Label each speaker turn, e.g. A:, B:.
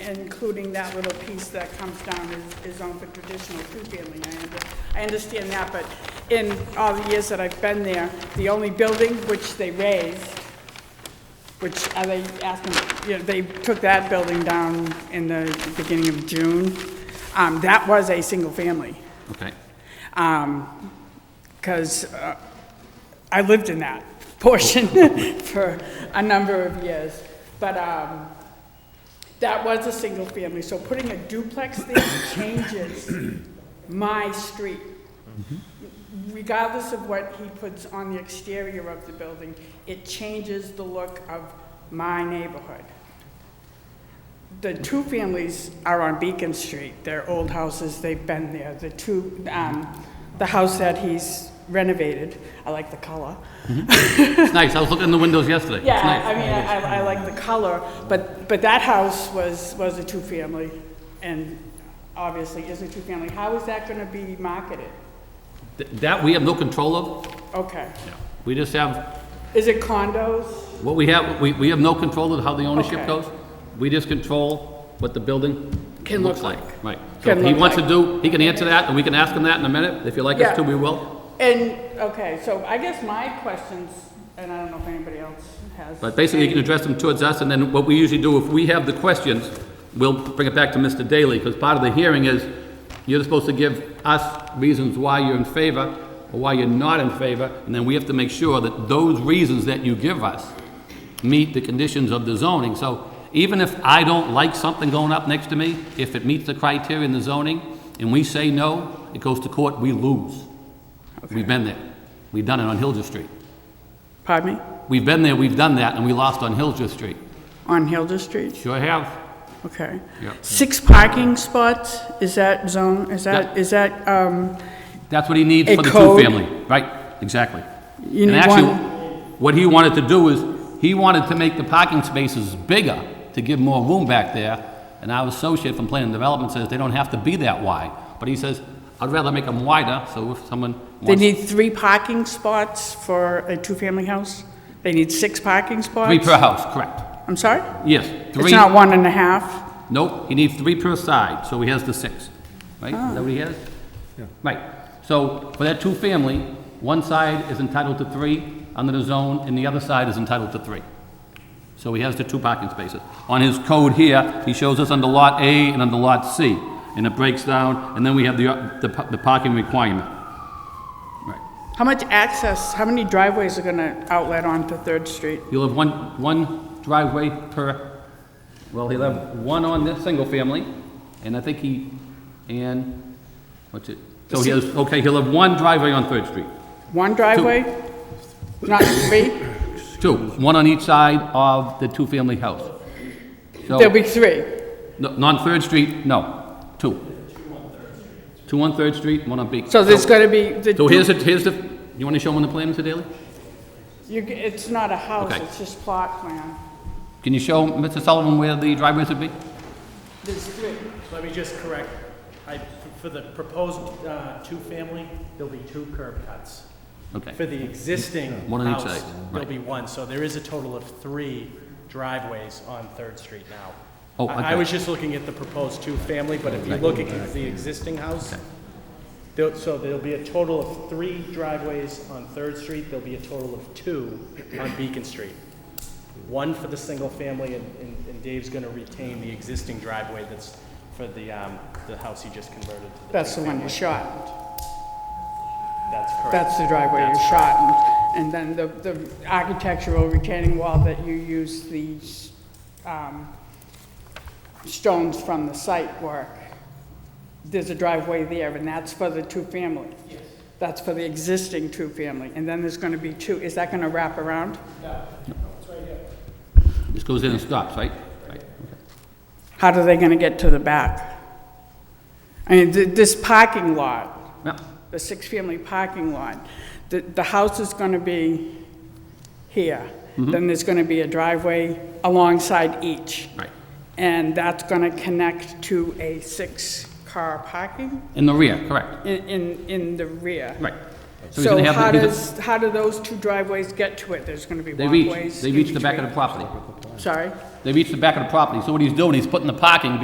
A: including that little piece that comes down is, is owned for traditional two-family. I under- I understand that, but in all the years that I've been there, the only building which they raised, which are they asking, you know, they took that building down in the beginning of June, um, that was a single-family.
B: Okay,
A: because Um, uh, I lived in that portion for a number of years. But um, that was a single family, so putting a duplex there changes my street. Regardless of what he puts on the exterior of the building, it changes the look of my neighborhood. The two families are on Beacon Street. They're old houses, they've been there. The two, um, the house that he's renovated, I like the color.
B: it's nice, I was looking in the windows yesterday. It's
A: Yeah,
B: nice.
A: I mean, I, I like the color, but, but that house was, was a two-family and obviously is a two-family. How is that gonna be marketed?
B: Th- That we have no control of,
A: Okay.
B: we just have,
A: Is it condos?
B: what we have, we, we have no control of how the ownership
A: Okay.
B: goes. We just control what the building
A: Can
B: looks
A: look
B: like.
A: like.
B: Right, so
A: Can
B: if he
A: look
B: wants to
A: like.
B: do, he can answer that, and we can ask him that in a minute, if you like us
A: Yeah.
B: to, we will.
A: And, okay, so I guess my questions, and I don't know if anybody else has.
B: But basically, you can address them towards us, and then what we usually do, if we have the questions, we'll bring it back to Mr. Daly, because part of the hearing is, you're supposed to give us reasons why you're in favor, or why you're not in favor, and then we have to make sure that those reasons that you give us meet the conditions of the zoning. So even if I don't like something going up next to me, if it meets the criteria in the zoning, and we say no, it goes to court, we lose. We've been there. We've done it on Hillsborough Street.
A: Pardon me?
B: We've been there, we've done that, and we lost on Hillsborough Street.
A: On Hilda Street?
B: Sure have.
A: Okay.
B: Yep.
A: Six parking spots, is that zone, is that,
B: Yep.
A: is that, um,
B: That's what he needs
A: A
B: for the
A: code.
B: two-family. Right, exactly.
A: You
B: And
A: need
B: actually,
A: one-
B: what he wanted to do is, he wanted to make the parking spaces bigger to give more room back there. And our associate from planning and development says they don't have to be that wide. But he says, I'd rather make them wider, so if someone
A: They
B: wants
A: need three parking spots for a two-family house? They need six parking spots?
B: three per house, correct.
A: I'm sorry?
B: Yes, three.
A: It's not one and a half?
B: Nope, he needs three per side, so he has the six, right? Is that what he has? Right, so for that two-family, one side is entitled to three under the zone, and the other side is entitled to three. So he has the two parking spaces. On his code here, he shows us under Lot A and under Lot C, and it breaks down, and then we have the, the pa- the parking requirement. Right,
A: How much access, how many driveways are gonna outlet onto Third Street?
B: you'll have one, one driveway per, well, he'll have one on this single-family, and I think he, and, what's it? So he has, okay, he'll have one driveway on Third Street.
A: One driveway? Not three?
B: Two, one on each side of the two-family house. So,
A: There'll be three.
B: no- not on Third Street, no, two. Two on Third Street, one on Beacon.
A: So there's gonna be the
B: So here's,
A: two,
B: the here's the, you want to show them the plan, Mr. Daly?
A: you g- it's not a house,
B: Okay.
A: it's just plot plan.
B: Can you show Mr. Sullivan where the driveways would be?
A: There's three.
C: Let me just correct, I, for the proposed, uh, two-family, there'll be two curb cuts. For
B: Okay,
C: the existing
B: One on each
C: house,
B: side,
C: there'll
B: right.
C: be one, so there is a total of three driveways on Third Street now.
B: Oh,
C: I-
B: okay.
C: I was just looking at the proposed two-family, but if you look at the existing house, there, so there'll be a total of three driveways on Third Street, there'll be a total of two on Beacon Street. One for the single family, and, and- and Dave's gonna retain the existing driveway that's for the, um, the house he just converted to the.
A: That's the one you
C: two-family.
A: shot.
C: That's correct.
A: That's the driveway you
C: That's
A: shot, and, and then the, the architectural retaining wall that you use these, um, stones from the site work. There's a driveway there, and that's for the two-family. Yes. That's for the existing two-family, and then there's gonna be two, is that gonna wrap around?
B: this goes in and stops, right? Right.
A: How are they gonna get to the back? I mean, th- this parking lot,
B: Yeah.
A: the six-family parking lot, the, the house is gonna be here.
B: Mm-hmm.
A: Then there's gonna be a driveway alongside each.
B: Right.
A: And that's gonna connect to a six-car parking
B: In the rear, correct,
A: in, in, in the rear.
B: right. he's gonna
A: So
B: have the-
A: how
B: he's a-
A: does, how do those two driveways get to it? There's gonna be
B: They reach,
A: walkways?
B: they
A: in
B: reach the back of the
A: between.
B: property.
A: Sorry?
B: They reach the back of the property. So what he's doing, he's putting the parking